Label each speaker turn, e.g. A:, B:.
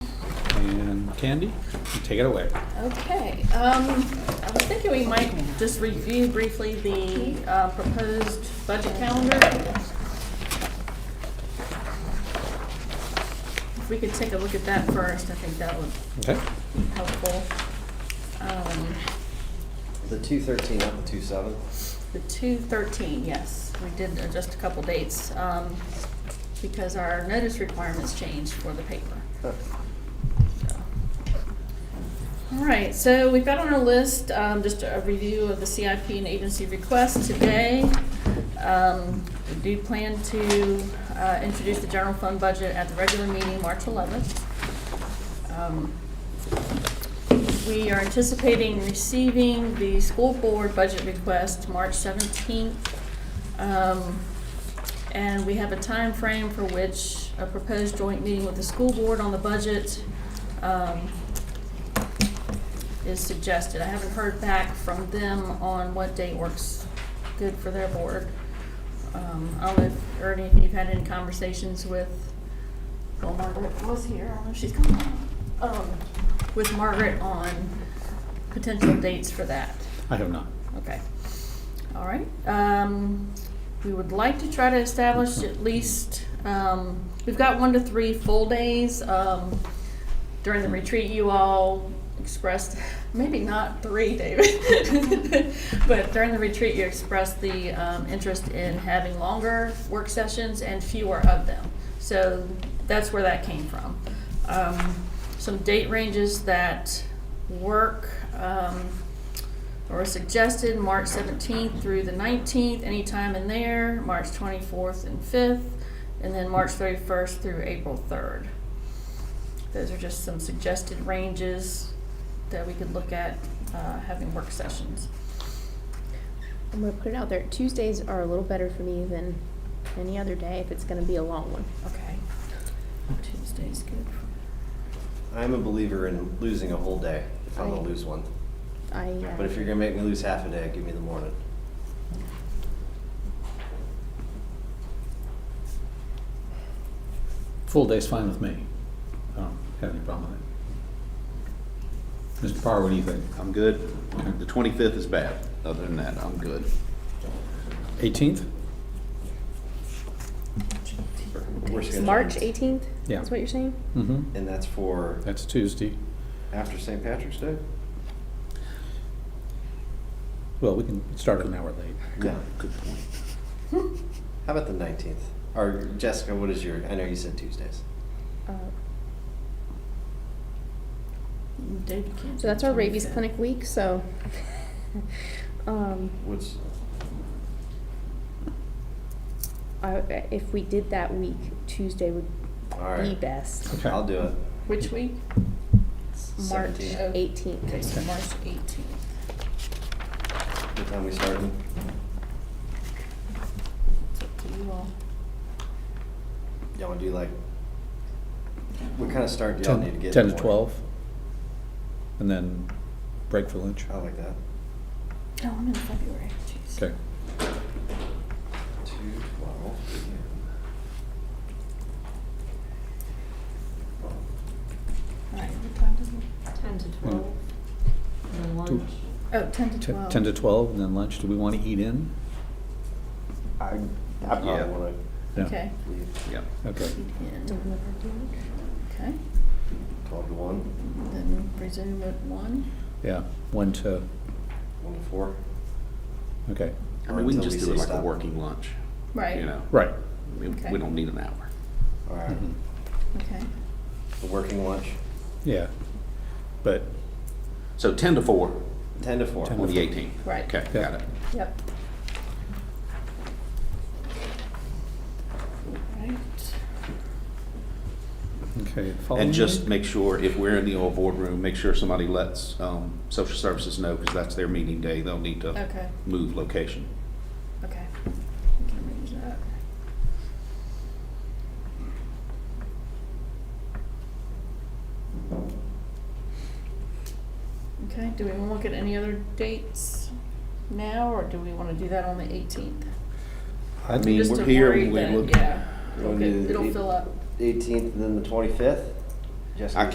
A: Candy, take it away.
B: Okay, um, I was thinking we might just review briefly the, uh, proposed budget calendar. If we could take a look at that first, I think that would
A: Okay?
B: be helpful. Um,
C: The two thirteen, not the two seven.
B: the two thirteen, yes, we did adjust a couple dates, um, because our notice requirements changed for the paper. All right, so we've got on our list, um, just a review of the CIP and agency requests today. Um, we do plan to, uh, introduce the general fund budget at the regular meeting, March eleventh. Um, We are anticipating receiving the school board budget request March seventeenth. Um, And we have a time frame for which a proposed joint meeting with the school board on the budget, um, is suggested. I haven't heard back from them on what date works good for their board. Um, I don't know if Ernie, if you've had any conversations with, well, Margaret was here, I don't know if she's coming. Um, with Margaret on potential dates for that.
A: I have not.
B: Okay. All right. Um, we would like to try to establish at least, um, we've got one to three full days. Um, during the retreat, you all expressed, maybe not three, David, but during the retreat, you expressed the, um, interest in having longer work sessions and fewer of them. So that's where that came from. Um, some date ranges that work, um, or suggested March seventeenth through the nineteenth, anytime in there, March twenty-fourth and fifth, and then March thirty-first through April third. Those are just some suggested ranges that we could look at, uh, having work sessions.
D: I'm gonna put it out there. Tuesdays are a little better for me than any other day if it's gonna be a long one.
B: Okay. Tuesday's good.
C: I'm a believer in losing a whole day, if I'm gonna
D: Right.
C: lose one.
D: I, uh,
C: But if you're gonna make me lose half a day, give me the morning.
A: Full day's fine with me. I don't have any problem with it. Mr. Parr, what do you think?
E: I'm good. The 25th is bad. Other than that, I'm good.
A: Eighteenth?
C: We're
D: it's
C: scheduled-
D: March eighteenth?
A: Yeah.
D: Is what you're saying?
A: Mm-hmm.
C: And that's for
A: That's Tuesday.
C: after St. Patrick's Day?
A: Well, we can start an hour late.
C: No.
E: Good point.
C: How about the nineteenth? Or Jessica, what is your, I know you said Tuesdays.
D: Uh,
B: David can't.
D: So that's our rabies clinic week, so. Um,
C: What's,
D: I, if we did that week, Tuesday would
C: all
D: be
C: right,
D: best.
A: Okay.
C: I'll do it.
B: Which week? March
C: 17th.
B: oh-
D: Eighteenth.
B: Okay, so March eighteenth.
C: What time we starting?
B: It's up to you all.
C: Y'all wanna do like, what kind of start do y'all need to
A: Ten
C: get?
A: 10
C: in
A: to
C: the morning?
A: twelve. And then break for lunch.
C: I like that.
B: No, Oh, I'm in February, jeez.
A: Okay.
C: Two, twelve.
B: All right, what time does it?
F: Ten to
A: Hmm.
F: twelve, and then
A: Do-
F: lunch.
B: Oh, ten to
A: Ten
B: twelve.
A: 10 to twelve and then lunch. Do we want to eat in?
C: I, I
E: Yeah.
C: probably wanna
A: No.
B: Okay.
C: leave
E: Yeah.
A: Okay.
B: Ten. Okay.
C: twelve to one.
B: Then resume at one.
A: Yeah, one to,
C: One to four.
A: okay.
E: I mean, we can
C: Until
E: just
C: we
E: do it
C: say
E: like a
C: stop.
E: working lunch, you know?
A: Right.
E: We,
B: Okay.
E: we don't need an hour.
C: All right.
A: Mhm.
B: Okay.
C: A working lunch.
A: Yeah. But
E: So 10 to 4
C: Ten to four.
A: 10
E: on the 18th.
B: Right.
E: Okay,
A: Yeah.
E: got it.
B: Yep. Right.
A: Okay.
E: And
A: following
E: just
A: week?
E: make sure, if we're in the old boardroom, make sure somebody lets um, social services know, because that's their meeting day. They'll need to
B: Okay.
E: move location.
B: Okay. We can arrange that. Okay, do we want to look at any other dates now, or do we want to do that on the eighteenth?
E: I
A: I'd-
E: mean, we're here, we look.
B: Yeah,
C: We'll
B: it'll
C: do
B: get-
C: the
B: it'll
C: eight-
B: fill up.
C: Eighteenth and then the twenty-fifth.
E: I